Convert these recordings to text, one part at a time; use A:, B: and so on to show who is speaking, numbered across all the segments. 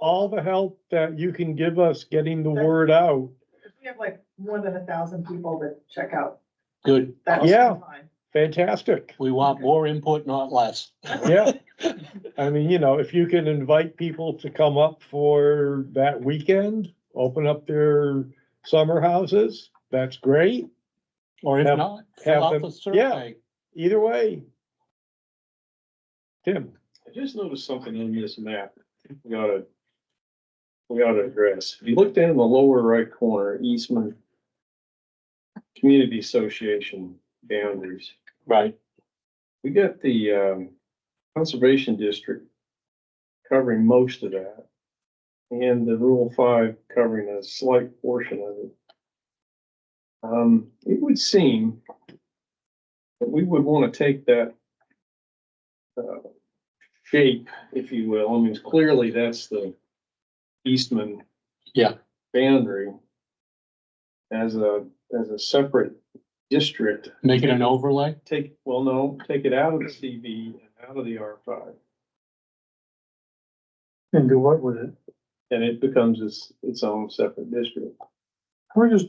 A: all the help that you can give us getting the word out.
B: We have like more than a thousand people that check out.
C: Good.
B: that
A: Yeah.
B: online.
A: Fantastic.
C: We want more input, not less.
A: Yeah. I mean, you know, if you can invite people to come up for that weekend, open up their summer houses, that's great.
C: Or if
A: Have-
C: not,
A: have
C: fill out
A: them-
C: the
A: yeah.
C: survey.
A: Either way. Tim,
D: I just noticed something in this map. We gotta. We gotta address. If you look down in the lower right corner, Eastman. Community Association boundaries.
C: Right.
D: We got the um Conservation District. Covering most of that. And the Rural Five covering a slight portion of it. Um, it would seem. That we would wanna take that. Uh, shape, if you will. I mean, clearly that's the Eastman.
C: Yeah.
D: Boundary. As a, as a separate district
C: Make it an overlay.
D: take, well, no, take it out of the CV and out of the R five.
E: And do what with it?
D: And it becomes its, its own separate district.
E: We're just,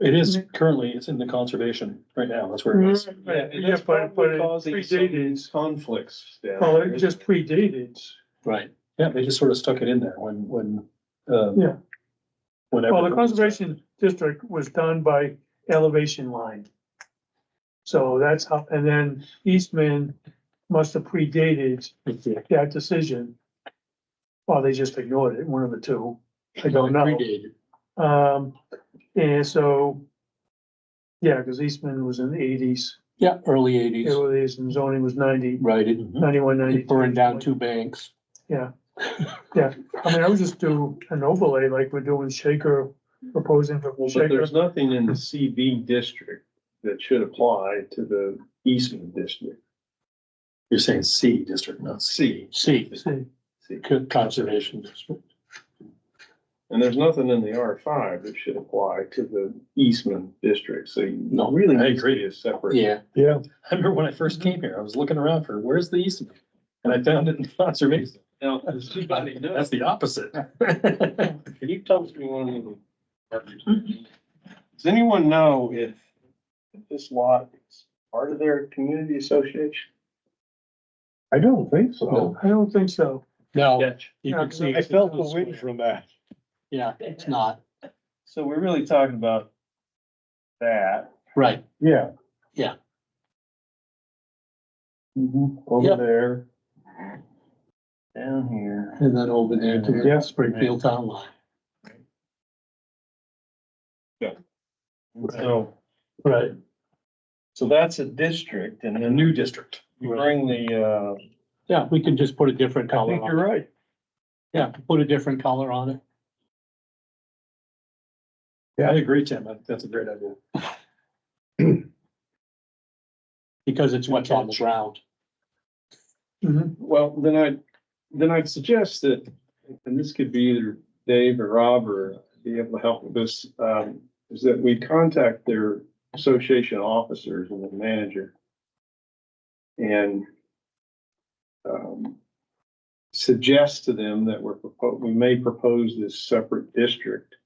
F: It is currently, it's in the conservation right now, that's where it
D: Mm-hmm.
F: is.
E: Yeah, yeah, but, but it predated,
D: Conflicts down.
E: well, it just predated.
C: Right.
F: Yeah, they just sort of stuck it in there when, when, um.
E: Yeah.
F: Whenever.
E: Well, the conservation district was done by elevation line. So that's how, and then Eastman must have predated that decision. Or they just ignored it, one of the two. I don't know.
C: Predated.
E: Um, and so, yeah, because Eastman was in the eighties,
C: Yeah, early eighties,
E: eighties, and zoning was ninety,
C: right. It
E: ninety-one,
C: it
E: ninety-two.
C: burned down two banks.
E: I mean, I would just do an overlay like we're doing Shaker, proposing for
D: Well, but
E: Shaker.
D: there's nothing in the CB district that should apply to the Eastman district,
F: You're saying C district, not C.
D: C.
C: C,
E: See,
D: C.
C: co- conservation district.
D: And there's nothing in the R five that should apply to the Eastman district, so you
C: No,
D: really
F: I
D: need to be a separate.
C: Yeah,
A: yeah,
F: I remember when I first came here, I was looking around for, where's the east? And I found it in conservation.
D: Now, does anybody know?
F: That's the opposite.
D: Can you tell me one? Does anyone know if this lot is part of their community association?
A: I don't think so.
C: No.
E: I don't think so.
C: no,
D: Yes.
C: you can see.
A: I felt the wind from that.
C: Yeah, it's not,
D: So we're really talking about that.
C: right.
A: Yeah.
C: Yeah. Yeah.
F: Mm-hmm.
A: Over there.
D: Down here.
C: And then over there to the
A: Yeah.
C: Springfield town line.
D: So,
C: Right.
D: so that's a district and then
F: New district.
D: you bring the, uh,
C: Yeah, we can just put a different
A: I
C: color
A: think
C: on it.
A: you're right.
C: Yeah, put a different color on it.
F: Yeah, I agree, Tim. That- That's a great idea.
C: Because it's what's on the ground.
E: Mhm.
D: well, then I, then I'd suggest that, and this could be either Dave or Rob or be able to help with this, um, is that we contact their association officers and the manager. And, um, suggest to them that we're, propo- we may propose this separate district.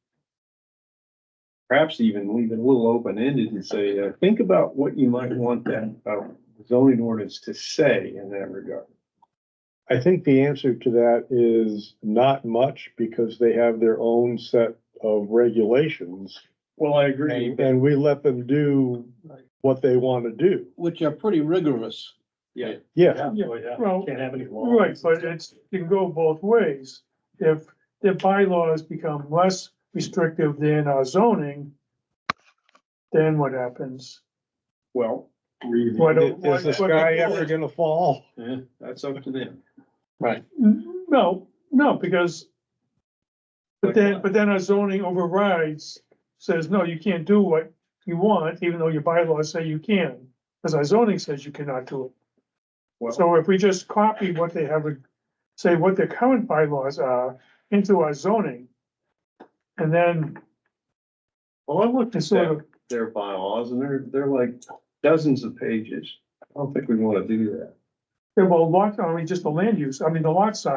D: Perhaps even leave it a little open-ended and say, uh, think about what you might want that, uh, zoning ordinance to say in that regard.
A: I think the answer to that is not much because they have their own set of regulations.
D: Well, I agree.
A: And we let them do what they want to do.
C: Which are pretty rigorous.
A: Yeah,
F: Yeah, well, Oh, yeah.
E: Well,
F: Can't have any law.
E: right, but it's, it can go both ways. If the bylaws become less restrictive than our zoning, then what happens?
D: Well,
E: Why don't- why-
A: is the
E: why-
A: sky ever gonna fall?
D: eh, that's up to them.
E: No, no, because. But then, but then our zoning overrides, says, no, you can't do what you want, even though your bylaws say you can. Because our zoning says you cannot do
D: Well-
E: it. So if we just copy what they have, say what their current bylaws are into our zoning. And then
D: Well, I looked
E: to
D: at
E: sort
D: their,
E: of,
D: their bylaws and they're, they're like dozens of pages. I don't think we want to do that.
E: yeah, well, lot, I mean, just the land use, I mean, the lot size.